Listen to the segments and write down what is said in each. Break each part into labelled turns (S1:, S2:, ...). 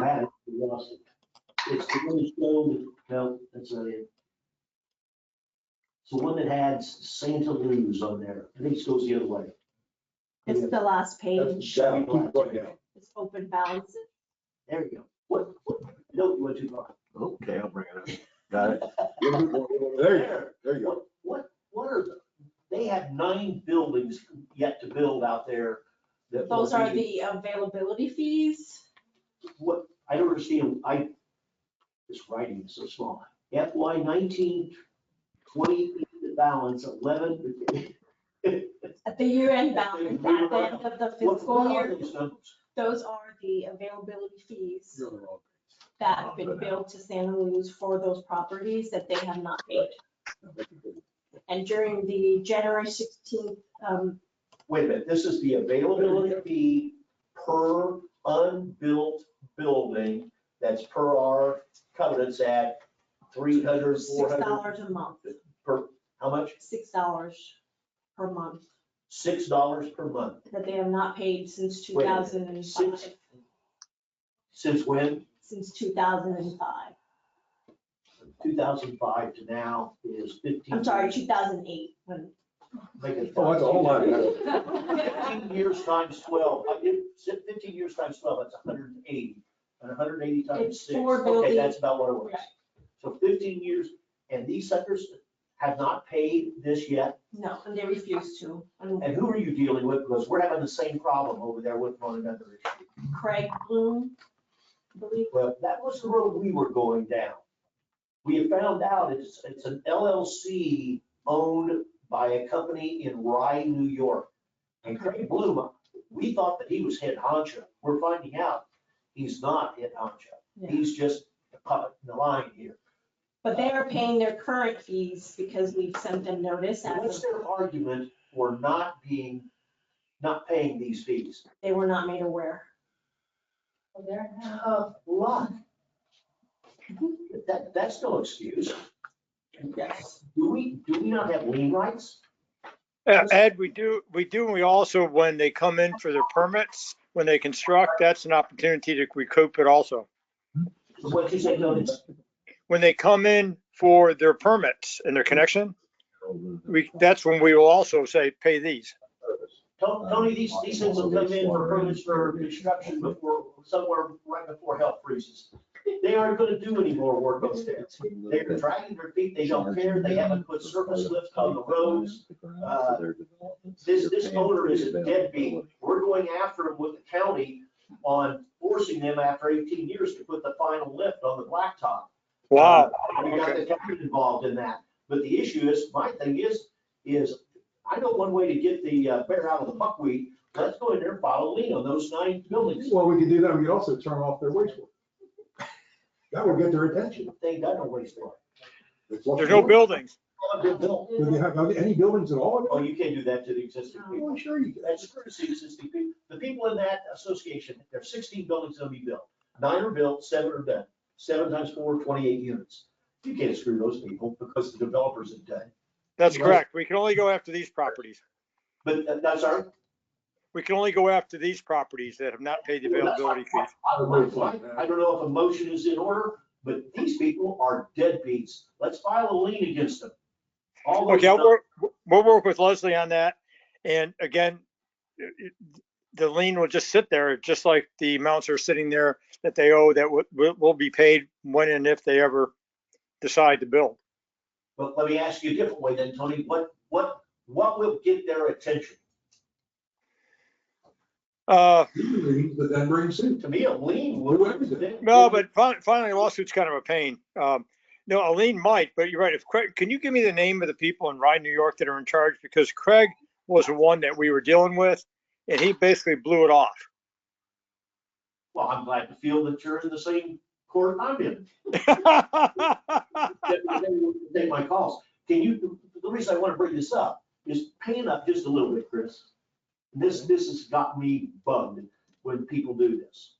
S1: we lost it. It's the one that showed, no, that's not it. It's the one that had Santa Luz on there. I think it goes the other way.
S2: It's the last
S1: That's
S2: page.
S1: down black.
S2: It's open balance.
S1: There you go. What, what, no, you went too far.
S3: Okay, I'll bring it up. Got it.
S4: There you go, there you go.
S1: What, what are the, they have nine buildings yet to build out there that.
S2: Those
S1: were-
S2: are the availability fees.
S1: What, I don't understand, I, this writing is so small. FY nineteen, twenty, the balance eleven.
S2: At the year-end
S1: That's
S2: balance, at
S1: the year-end
S2: the end of the
S1: What-
S2: fiscal
S1: What are
S2: year,
S1: those numbers?
S2: those are the availability fees
S4: You're on the wrong
S1: Oh,
S2: that have been billed to Santa Luz for those properties that they have not paid.
S4: page.
S2: And during the January 16th, um,
S1: Wait a minute, this is the availability fee per unbuilt building that's per our covenants at three hundred, four hundred,
S2: $6 a month,
S1: per, how much?
S2: $6 per month
S1: Six dollars per month.
S2: that they have not paid since
S1: Wait a minute,
S2: 2005,
S1: six- Since when?
S2: since 2005.
S1: Two thousand five to now is fifteen.
S2: I'm sorry, 2008, when
S1: Make it
S4: Oh, that's a whole lot.
S5: Uh,
S1: Fifteen years times twelve, I did, said fifteen years times twelve, that's hundred and eighty, and hundred and eighty times
S2: It's
S1: six,
S2: four
S1: okay,
S2: building-
S1: that's about what it was.
S2: Right.
S1: So fifteen years, and these suckers have not paid this yet,
S2: No, and they refused to. And
S1: and who are you dealing with, because we're having the same problem over there with one another.
S2: Craig Bloom, I believe,
S1: Well, that was the road we were going down. We have found out it's, it's an LLC owned by a company in Rye, New York. And Craig Bloom, we thought that he was head honcho. We're finding out he's not head honcho.
S2: Yeah.
S1: He's just a puppet in the line here.
S2: but they are paying their current fees because we've sent them notice
S1: So What's
S2: as
S1: their argument for not being, not paying these fees?
S2: they were not made aware.
S1: Tough luck. That, that's no excuse.
S2: Yes.
S1: Do we, do we not have lien rights?
S5: Uh, Ed, we do, we do, and we also, when they come in for their permits, when they construct, that's an opportunity to recoup it also.
S1: What did you say, Tony?
S5: When they come in for their permits and their connection, we, that's when we will also say, pay these.
S1: Tony, Tony, these, these things will come in for permits for construction before, somewhere right before hell freezes. They aren't gonna do any more work upstairs. They're dragging their feet, they don't care, they haven't put surface lifts on the roads. Uh, This, this owner is a deadbeat. We're going after them with the county on forcing them after eighteen years to put the final lift on the blacktop.
S5: Wow.
S1: Uh, We got the county involved in that, but the issue is, my thing is, is I know one way to get the uh, bear out of the buckwheat, let's go in there and file a lien on those nine buildings.
S4: Well, we could do that, we could also turn off their wastewater. That would get their attention.
S1: They got no wastewater.
S5: There's no buildings.
S1: Oh,
S4: Do they have any buildings at all?
S1: you can't do that to the existing people.
S4: Oh, sure you
S1: That's the courtesy of existing people. The people in that association, there's sixteen buildings that'll be built. Nine are built, seven are done. Seven times four, twenty-eight units. You can't screw those people because the developers have done.
S5: That's correct. We can only go after these properties.
S1: But uh, that- that's our,
S5: We can only go after these properties that have not paid the availability fees.
S1: I don't know- I don't know if a motion is in order, but these people are deadbeats. Let's file a lien against them. All those
S5: Okay, I'll
S1: numbers-
S5: work, we'll work with Leslie on that. And again, it- it- the lien will just sit there, just like the amounts are sitting there that they owe that will, will- will be paid when and if they ever decide to build.
S1: But let me ask you a different way then, Tony. What, what, what will get their attention?
S5: Uh,
S4: could. But then bring suit.
S1: To me, a lien
S4: Do
S1: would.
S4: everything.
S5: no, but fin- finally lawsuit's kind of a pain. Um, no, a lien might, but you're right. If Craig, can you give me the name of the people in Rye, New York that are in charge? Because Craig was the one that we were dealing with and he basically blew it off.
S1: Well, I'm glad to feel that you're in the same court I'm in. That they- Take my calls. Can you, the reason I want to bring this up is paying up just a little bit, Chris. This, this has got me bugged when people do this.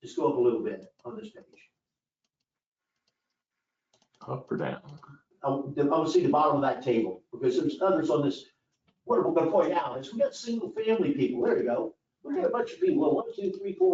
S1: Just go up a little bit on this page.
S3: Up or down?
S1: I want I want to see the bottom of that table, because there's others on this. What we're going to point out is we got single family people, there you go. We got a bunch of people, one, two, three, four,